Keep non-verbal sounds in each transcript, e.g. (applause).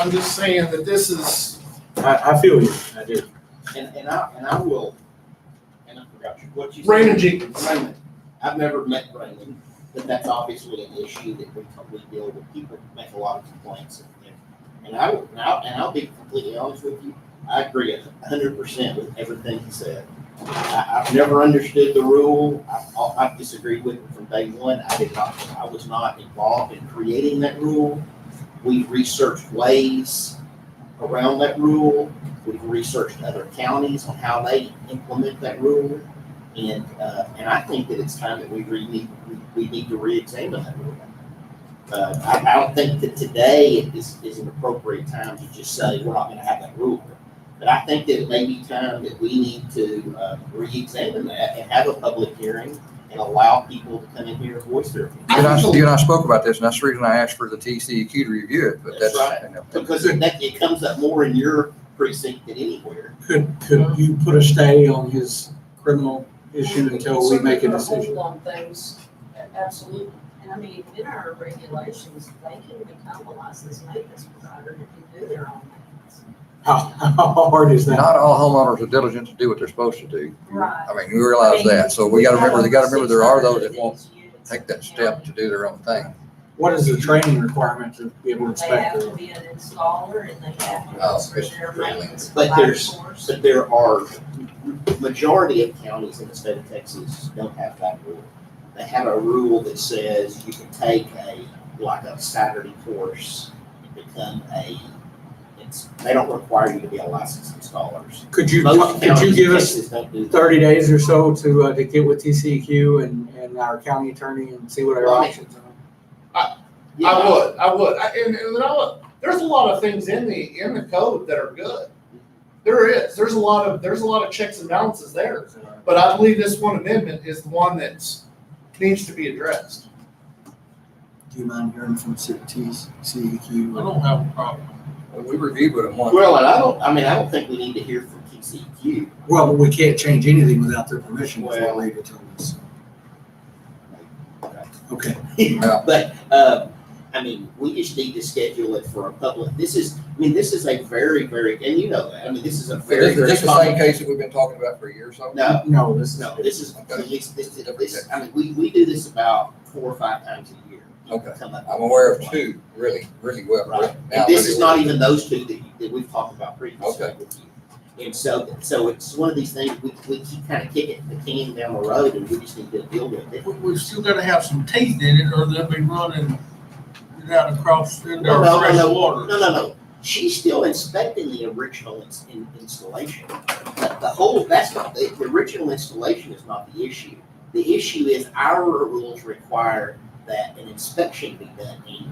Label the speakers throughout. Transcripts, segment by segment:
Speaker 1: I'm just saying that this is,
Speaker 2: I, I feel you, I do.
Speaker 3: And, and I, and I will, and I forgot you- what you said.
Speaker 1: Raymond Jenkins.
Speaker 3: Raymond. I've never met Raymond, but that's obviously an issue that we totally deal with. People make a lot of complaints. and- And I, will- and I'll, and I'll be completely honest with you, I agree a hundred percent with everything he said. I, I've never understood the rule. I've, I've disagreed with it from day one. I did not, I was not involved in creating that rule. We've researched ways around that rule. We've researched other counties on how they implement that rule. And, uh, and I think that it's time that we re, need, we, we need to reexamine that rule. Uh, I, I don't think that today is, is an appropriate time to just say, we're not gonna have that rule. But I think that it may be time that we need to, uh, reexamine that and have a public hearing and allow people to come in here and voice their opinion.
Speaker 4: You and I, you and I spoke about this, and that's the reason I asked for the TCEQ to review it, but
Speaker 3: That's
Speaker 4: that's.
Speaker 3: right. Because it, that, it comes up more in your precinct than anywhere.
Speaker 2: Could, could you put a stay on his criminal issue until we make a decision?
Speaker 5: Hold on things, absolutely. And I mean, in our regulations, they can become a licensed maintenance provider if you do their own maintenance.
Speaker 2: How, how hard is that?
Speaker 4: Not all homeowners are diligent to do what they're supposed to do.
Speaker 5: Right.
Speaker 4: I mean, we realize that, so we gotta remember, they gotta remember there are those that won't take that step to do their own thing.
Speaker 2: What is the training requirement to be able to
Speaker 5: They have
Speaker 2: inspect?
Speaker 5: to be an installer and they have
Speaker 4: Oh,
Speaker 5: to
Speaker 4: it's
Speaker 5: serve their
Speaker 4: really-
Speaker 5: maintenance.
Speaker 3: But
Speaker 5: provider
Speaker 3: there's-
Speaker 5: course.
Speaker 3: But there are, majority of counties in the state of Texas don't have that rule. They have a rule that says you can take a, like a Saturday course and become a, it's, they don't require you to be a licensed installers.
Speaker 2: Could you,
Speaker 3: Most
Speaker 2: could you
Speaker 3: counties in
Speaker 2: give us
Speaker 3: Texas don't do that.
Speaker 2: thirty days or so to, uh, to get with TCEQ and, and our county attorney and see what our
Speaker 3: Right.
Speaker 2: options are?
Speaker 3: Yeah.
Speaker 1: I would, I would, I- and, and I would, there's a lot of things in the, in the code that are good. There is, there's a lot of, there's a lot of checks and balances there, but I believe this one amendment is the one that's, needs to be addressed.
Speaker 6: Do you mind hearing from E
Speaker 7: I
Speaker 6: CEQ?
Speaker 7: don't have a problem.
Speaker 4: We reviewed what it wanted.
Speaker 3: Well, and I don't, I mean, I don't think we need to hear from E TCEQ.
Speaker 6: Well, we can't change anything without their permission if they
Speaker 3: Well-
Speaker 6: leave it to us. Okay.
Speaker 2: (laughs)
Speaker 4: Yeah.
Speaker 3: (laughs) But, um, I mean, we just need to schedule it for a public, this is, I mean, this is a very, very, and you know that, I mean, this is a very,
Speaker 4: This is
Speaker 3: very
Speaker 4: this the same
Speaker 3: common.
Speaker 4: case that we've been talking about for a year or so?
Speaker 3: No,
Speaker 2: No, this is.
Speaker 3: no, this is,
Speaker 4: Okay.
Speaker 3: this, this, this, I mean, we, we do this about four or five times a year.
Speaker 4: Okay.
Speaker 3: Come up with
Speaker 4: I'm aware of
Speaker 3: one.
Speaker 4: two, really, really well.
Speaker 3: Right.
Speaker 4: Now,
Speaker 3: And this
Speaker 4: really
Speaker 3: is
Speaker 4: well.
Speaker 3: not even those two that, you- that we've talked about previously
Speaker 4: Okay.
Speaker 3: with you. And so, so it's one of these things, we, we keep kind of kicking the can down the road and we just need to deal with it.
Speaker 7: We, we've still gotta have some teeth in it, or they'll be running down across, into
Speaker 3: No, no,
Speaker 7: our
Speaker 3: no,
Speaker 7: fresh
Speaker 3: no.
Speaker 7: water.
Speaker 3: No, no, no. She's still inspecting the original ins- in- installation. The, the whole, that's not, the, the original installation is not the issue. The issue is our rules require that an inspection be done annually.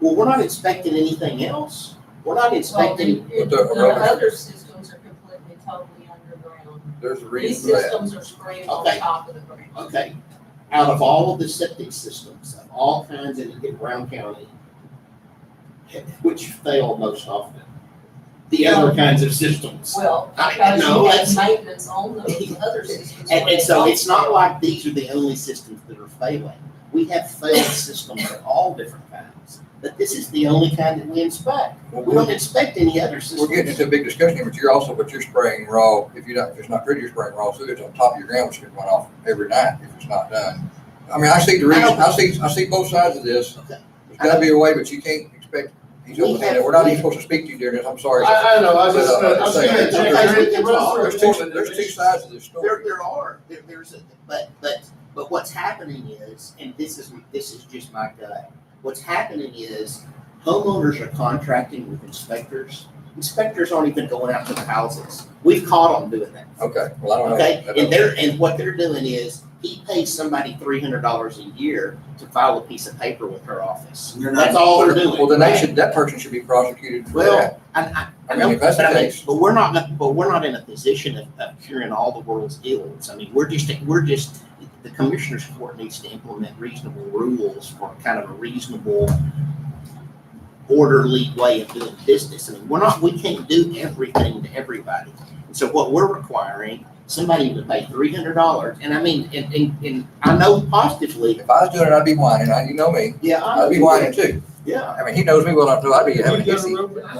Speaker 3: Well, we're not inspecting anything else. We're not
Speaker 5: Well, the,
Speaker 3: inspecting,
Speaker 4: But
Speaker 5: the
Speaker 4: the-
Speaker 5: other systems are completely, totally underground.
Speaker 4: There's a
Speaker 5: These
Speaker 4: reason for that.
Speaker 5: systems are sprayed on
Speaker 3: Okay.
Speaker 5: top of the ground.
Speaker 3: okay, out of all of the septic systems of all kinds in, in Brown County, which fail most often, the other kinds of systems.
Speaker 5: Well,
Speaker 3: I-
Speaker 5: because
Speaker 3: no,
Speaker 5: you have
Speaker 3: that's-
Speaker 5: maintenance on those other systems.
Speaker 3: And,
Speaker 5: when
Speaker 3: and
Speaker 5: they
Speaker 3: so
Speaker 5: don't
Speaker 3: it's not
Speaker 5: fail.
Speaker 3: like these are the only systems that are failing. We have
Speaker 4: (laughs)
Speaker 3: failed systems of all different kinds, but this is the only kind that we inspect.
Speaker 4: Well,
Speaker 3: We
Speaker 4: we're-
Speaker 3: don't inspect any other
Speaker 4: We're getting
Speaker 3: systems.
Speaker 4: into a big discussion, here, but you're also, but you're spraying raw, if you're not, if it's not pretty, you're spraying raw sewage on top of your ground, which could run off every night if it's not done. I mean, I see the reason, I see, I see both sides of this.
Speaker 3: Okay.
Speaker 4: There's gotta be a way, but you can't expect, he's
Speaker 3: We
Speaker 4: open handed,
Speaker 3: have-
Speaker 4: we're not
Speaker 3: we-
Speaker 4: even supposed to speak to you during this, I'm sorry.
Speaker 1: I, I know, I was just,
Speaker 4: But, uh,
Speaker 1: I uh, was
Speaker 4: I'm
Speaker 1: gonna
Speaker 4: saying,
Speaker 1: check, it runs
Speaker 4: There's
Speaker 1: through a
Speaker 4: two,
Speaker 1: board and
Speaker 4: there's two
Speaker 1: it's-
Speaker 4: sides of this
Speaker 3: There,
Speaker 4: story.
Speaker 3: there are, there, there's, a- but, but, but what's happening is, and this is, this is just my gut. What's happening is homeowners are contracting with inspectors. Inspectors aren't even going out to the houses. We've caught them doing that.
Speaker 4: Okay, well, I don't know.
Speaker 3: Okay,
Speaker 4: I don't
Speaker 3: and
Speaker 4: know.
Speaker 3: they're, and what they're doing is, he pays somebody three hundred dollars a year to file a piece of paper with her office.
Speaker 6: You're not-
Speaker 3: That's all they're doing.
Speaker 4: Well, then they should, that person should be prosecuted for
Speaker 3: Well,
Speaker 4: that.
Speaker 3: And I,
Speaker 4: I
Speaker 3: I
Speaker 4: mean,
Speaker 3: know,
Speaker 4: if that's
Speaker 3: but I
Speaker 4: the
Speaker 3: mean,
Speaker 4: case-
Speaker 3: but we're not, but we're not in a position of, of curing all the world's ills. I mean, we're just, we're just, the commissioner's court needs to implement reasonable rules for kind of a reasonable orderly way of doing business. I mean, we're not, we can't do everything to everybody. And so what we're requiring, somebody to pay three hundred dollars, and I mean, and, and, and I know positively,
Speaker 4: If I was doing it, I'd be whining, I, you know me,
Speaker 3: yeah, I.
Speaker 4: I'd be whining too.
Speaker 3: Yeah,
Speaker 4: I mean, he knows me well enough, to know I'd be having a hissy.